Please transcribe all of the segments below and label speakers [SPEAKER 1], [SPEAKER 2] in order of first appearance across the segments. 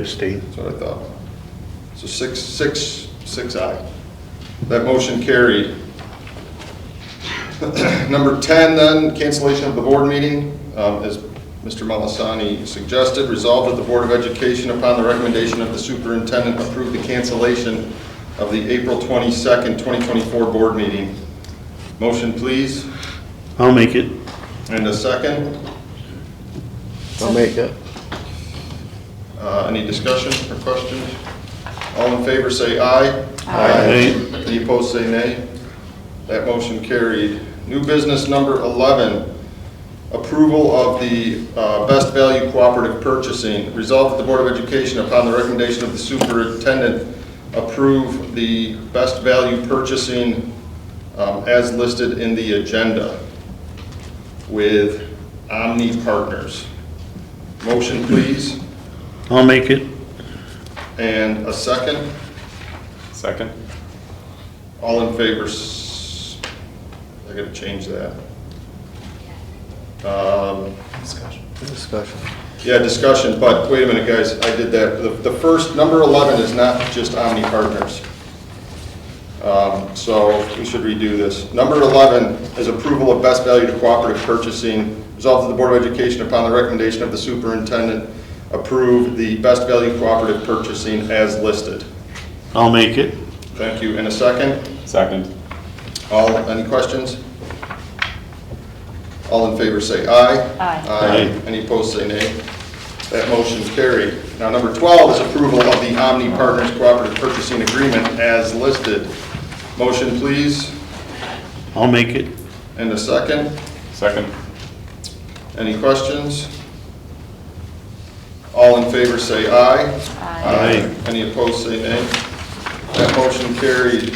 [SPEAKER 1] Abstain.
[SPEAKER 2] That's what I thought. So six, six, six aye. That motion carried. Number 10 then, cancellation of the board meeting. Um, As Mr. Malasani suggested, resolved that the Board of Education, upon the recommendation of the superintendent, approve the cancellation of the April 22nd, 2024 board meeting. Motion, please,
[SPEAKER 1] I'll make it.
[SPEAKER 2] and a second.
[SPEAKER 3] I'll make it.
[SPEAKER 2] Uh, Any discussion or questions? All in favor, say aye.
[SPEAKER 1] Aye.
[SPEAKER 2] Any opposed, say nay. That motion carried. New business number 11, approval of the uh, best value cooperative purchasing. Resolved that the Board of Education, upon the recommendation of the superintendent, approve the best value purchasing um, as listed in the agenda with Omni Partners. Motion, please,
[SPEAKER 1] I'll make it.
[SPEAKER 2] and a second.
[SPEAKER 4] Second?
[SPEAKER 2] All in favor, s- I gotta change that. Um,
[SPEAKER 3] Discussion.
[SPEAKER 2] Yeah, discussion, but wait a minute, guys, I did that. The- The first, number 11 is not just Omni Partners. Um, So we should redo this. Number 11 is approval of best value to cooperative purchasing. Resolved that the Board of Education, upon the recommendation of the superintendent, approve the best value cooperative purchasing as listed.
[SPEAKER 1] I'll make it.
[SPEAKER 2] Thank you. In a second?
[SPEAKER 4] Second.
[SPEAKER 2] All, any questions? All in favor say aye.
[SPEAKER 5] Aye.
[SPEAKER 1] Aye.
[SPEAKER 2] Any opposed say nay. That motion carried. Now, number 12 is approval of the Omni Partners Cooperative Purchasing Agreement as listed. Motion, please,
[SPEAKER 1] I'll make it.
[SPEAKER 2] and a second.
[SPEAKER 4] Second?
[SPEAKER 2] Any questions? All in favor say aye.
[SPEAKER 1] Aye.
[SPEAKER 2] Any opposed say nay. That motion carried.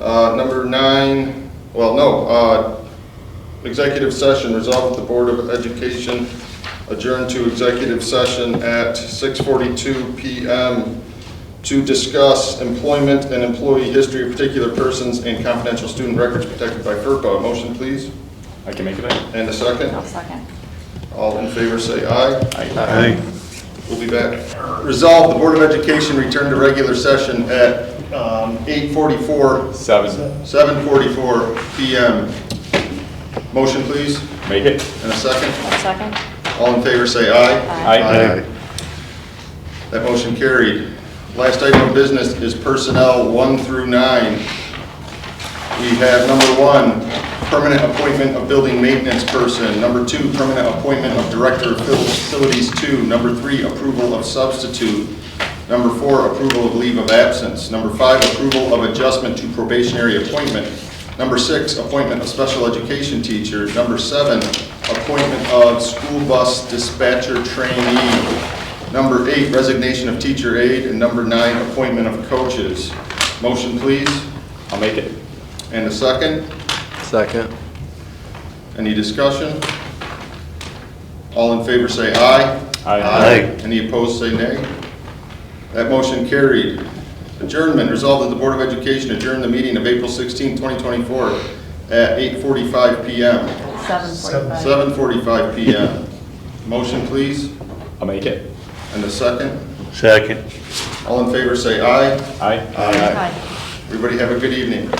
[SPEAKER 2] Uh, Number nine, well, no, uh, executive session, resolved that the Board of Education adjourn to executive session at 6:42 PM to discuss employment and employee history of particular persons and confidential student records protected by FERPA. Motion, please,
[SPEAKER 4] I can make it in?
[SPEAKER 2] and a second.
[SPEAKER 5] I'll second.
[SPEAKER 2] All in favor, say aye.
[SPEAKER 1] Aye.
[SPEAKER 2] We'll be back. Resolved, the Board of Education returned to regular session at um, 8:44,
[SPEAKER 4] Seven?
[SPEAKER 2] 7:44 PM. Motion, please,
[SPEAKER 4] Make it?
[SPEAKER 2] and a second.
[SPEAKER 5] I'll second.
[SPEAKER 2] All in favor, say aye.
[SPEAKER 4] Aye.
[SPEAKER 2] That motion carried. Last item of business is personnel one through nine. We have number one, permanent appointment of building maintenance person. Number two, permanent appointment of director of facilities two. Number three, approval of substitute. Number four, approval of leave of absence. Number five, approval of adjustment to probationary appointment. Number six, appointment of special education teacher. Number seven, appointment of school bus dispatcher trainee. Number eight, resignation of teacher aide. And number nine, appointment of coaches. Motion, please.
[SPEAKER 4] I'll make it?
[SPEAKER 2] And a second,
[SPEAKER 3] Second.
[SPEAKER 2] any discussion? All in favor say aye.
[SPEAKER 4] Aye.
[SPEAKER 2] Any opposed say nay. That motion carried. Adjournment, resolved that the Board of Education adjourn the meeting of April 16, 2024 at 8:45 PM,
[SPEAKER 5] Seven forty-five.
[SPEAKER 2] 7:45 PM. Motion, please,
[SPEAKER 4] I'll make it?
[SPEAKER 2] and a second.
[SPEAKER 1] Second.
[SPEAKER 2] All in favor say aye.
[SPEAKER 4] Aye?
[SPEAKER 2] Aye.
[SPEAKER 5] Aye.
[SPEAKER 2] Everybody have a good evening.